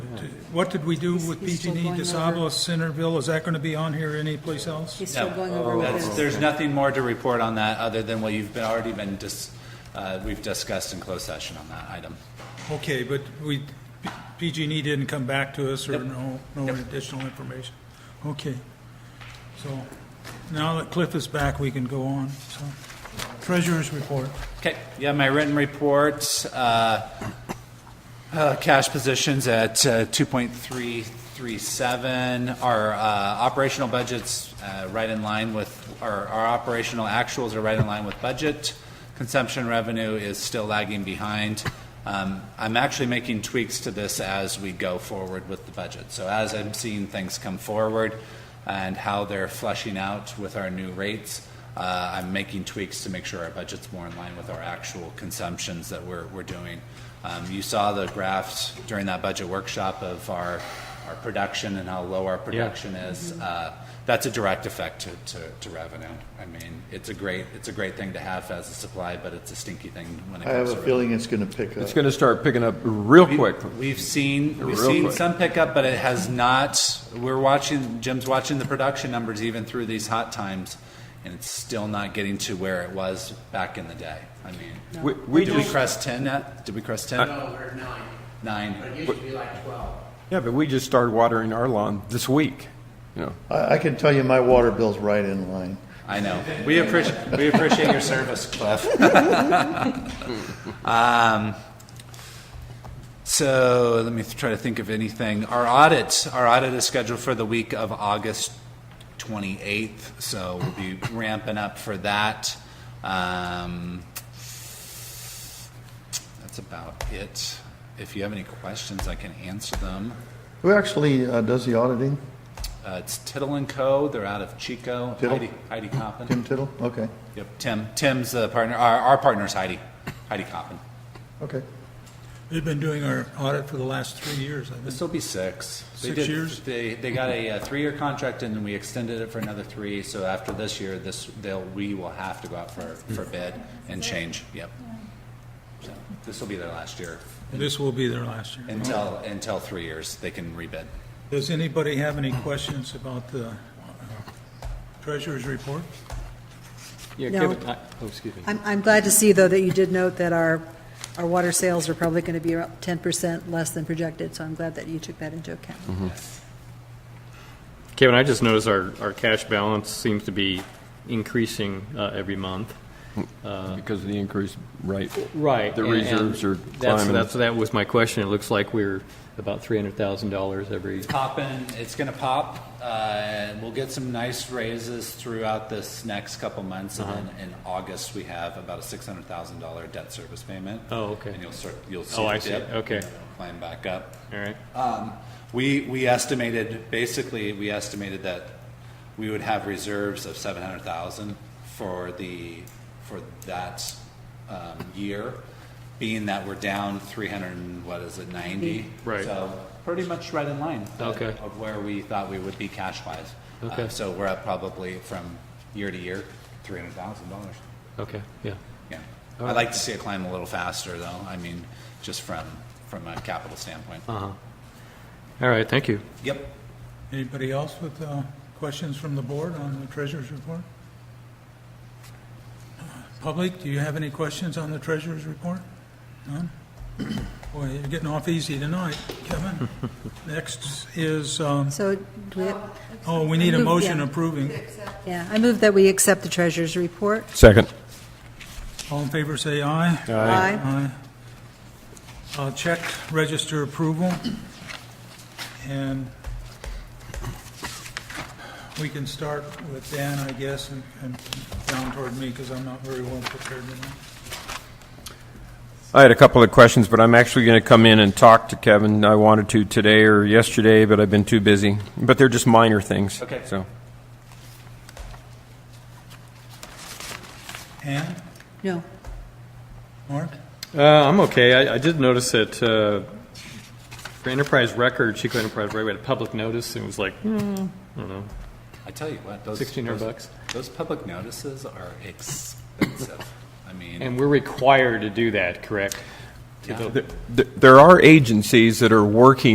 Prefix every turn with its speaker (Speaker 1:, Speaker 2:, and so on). Speaker 1: What did we do with
Speaker 2: He's still
Speaker 1: PG&E,
Speaker 2: going over.
Speaker 1: DeSable, Centerville? Is that going to be on here anyplace else?
Speaker 2: He's still
Speaker 3: No.
Speaker 2: going
Speaker 4: Oh,
Speaker 2: over
Speaker 3: That's-
Speaker 2: with his,
Speaker 3: There's nothing more to report on that, other than what you've been, already been dis, uh, we've discussed in closed session on that item.
Speaker 1: Okay, but we, P- PG&E didn't come back to us or
Speaker 3: Yep.
Speaker 1: no, no
Speaker 3: Yep.
Speaker 1: additional information? Okay. So now that Cliff is back, we can go on, so. Treasurer's report.
Speaker 3: Okay, yeah, my written report, uh, uh, cash positions at uh, 2.337. Our uh, operational budgets uh, right in line with, our our operational actuals are right in line with budget. Consumption revenue is still lagging behind. Um, I'm actually making tweaks to this as we go forward with the budget. So as I'm seeing things come forward and how they're flushing out with our new rates, uh, I'm making tweaks to make sure our budget's more in line with our actual consumptions that we're, we're doing. Um, you saw the graphs during that budget workshop of our, our production and how low our production is. Uh, that's a direct effect to, to, to revenue. I mean, it's a great, it's a great thing to have as a supply, but it's a stinky thing when it
Speaker 5: I
Speaker 3: comes
Speaker 5: have
Speaker 3: to
Speaker 5: a
Speaker 3: revenue.
Speaker 5: feeling it's going to pick up.
Speaker 6: It's going to start picking up real
Speaker 3: We-
Speaker 6: quick.
Speaker 3: We've seen, we've
Speaker 6: Real
Speaker 3: seen
Speaker 6: quick.
Speaker 3: some pickup, but it has not, we're watching, Jim's watching the production numbers even through these hot times, and it's still not getting to where it was back in the day. I mean,
Speaker 6: We, we
Speaker 3: did we
Speaker 6: just,
Speaker 3: crest ten yet? Did we crest ten?
Speaker 7: No, we're at nine, but
Speaker 3: Nine?
Speaker 7: it used to be like twelve.
Speaker 6: yeah, but we just started watering our lawn this week, you know.
Speaker 5: I, I can tell you my water bill's right in line.
Speaker 3: I know. We appreciate, we appreciate your service, Cliff. Um, So let me th- try to think of anything. Our audit, our audit is scheduled for the week of August 28th, so we'll be ramping up for that. Um, that's about it. If you have any questions, I can answer them.
Speaker 5: Who actually uh, does the auditing?
Speaker 3: Uh, it's Tittle and Co. They're out of Chico.
Speaker 5: Tittle?
Speaker 3: Heidi, Heidi Coppin.
Speaker 5: Tim Tittle? Okay,
Speaker 3: Yep. Tim. Tim's the partner. Our, our partner's Heidi. Heidi Coppin.
Speaker 5: okay.
Speaker 1: They've been doing our audit for the last three years, I
Speaker 3: This
Speaker 1: think.
Speaker 3: will be six. They
Speaker 1: Six
Speaker 3: did-
Speaker 1: years?
Speaker 3: They, they got a uh, three-year contract, and then we extended it for another three, so after this year, this, they'll, we will have to go out for, for bid and change, yep. So This will be their last year,
Speaker 1: This will be their last year.
Speaker 3: until, until three years, they can rebid.
Speaker 1: Does anybody have any questions about the uh, treasurer's report?
Speaker 4: Yeah,
Speaker 2: No.
Speaker 4: Kevin, I- oh, excuse me.
Speaker 2: I'm, I'm glad to see, though, that you did note that our, our water sales are probably going to be around 10% less than projected, so I'm glad that you took that into account.
Speaker 4: Mm-hmm. Kevin, I just noticed our, our cash balance seems to be increasing uh, every month.
Speaker 6: Because of the increased rate.
Speaker 4: Uh-huh. Right.
Speaker 6: The
Speaker 4: and- and
Speaker 6: reserves are
Speaker 4: That's,
Speaker 6: climbing.
Speaker 4: that's, that was my question. It looks like we're about three hundred thousand dollars every,
Speaker 3: Poppin', it's gonna pop, uh, we'll get some nice raises throughout this next couple months, and
Speaker 4: Uh-huh.
Speaker 3: then in August, we have about a six hundred thousand dollar debt service payment.
Speaker 4: Oh, okay.
Speaker 3: And you'll start, you'll see
Speaker 4: Oh, I
Speaker 3: the
Speaker 4: see.
Speaker 3: dip.
Speaker 4: Okay.
Speaker 3: and then it'll Climb back up.
Speaker 4: all right?
Speaker 3: Um, We, we estimated, basically, we estimated that we would have reserves of seven hundred thousand for the, for that, um, year, being that we're down three hundred and, what is it, ninety?
Speaker 4: Right.
Speaker 3: So, pretty much right in line. uh,
Speaker 4: Okay.
Speaker 3: Of where we thought we would be cash-wise. Uh,
Speaker 4: Okay.
Speaker 3: So we're up probably from year to year, three hundred thousand dollars.
Speaker 4: Okay, yeah.
Speaker 3: Yeah. I'd like to see it climb a little faster, though, I mean, just from, from a capital standpoint.
Speaker 4: Uh-huh. All right, thank you.
Speaker 3: Yep.
Speaker 1: Anybody else with uh, questions from the board on the treasurer's report? Public, do you have any questions on the treasurer's report? None? Boy, you're getting off easy tonight, Kevin. Next is, um,
Speaker 2: So, do we-
Speaker 1: oh, we need a
Speaker 2: Move,
Speaker 1: motion
Speaker 2: yeah.
Speaker 1: approving.
Speaker 2: yeah, I move that we accept the treasurer's report.
Speaker 6: Second.
Speaker 1: All in favor, say aye.
Speaker 2: Aye.
Speaker 1: Aye. Uh, Check register approval, and we can start with Dan, I guess, and- and down toward me, because I'm not very well prepared tonight.
Speaker 6: I had a couple of questions, but I'm actually going to come in and talk to Kevin. I wanted to today or yesterday, but I've been too busy. But they're just minor things.
Speaker 3: Okay.
Speaker 6: So,
Speaker 1: Ann,
Speaker 2: No,
Speaker 1: Mark?
Speaker 4: Uh, I'm okay. I, I did notice that, uh, for Enterprise Records, Chico Enterprise Records, we had a public notice, and it was like, hmm, I don't know,
Speaker 3: I tell you what, those.
Speaker 4: 1,600
Speaker 3: those-
Speaker 4: bucks.
Speaker 3: Those public notices are expensive. I mean,
Speaker 4: and we're required to do that, correct? To the-
Speaker 6: Th- there are agencies that are working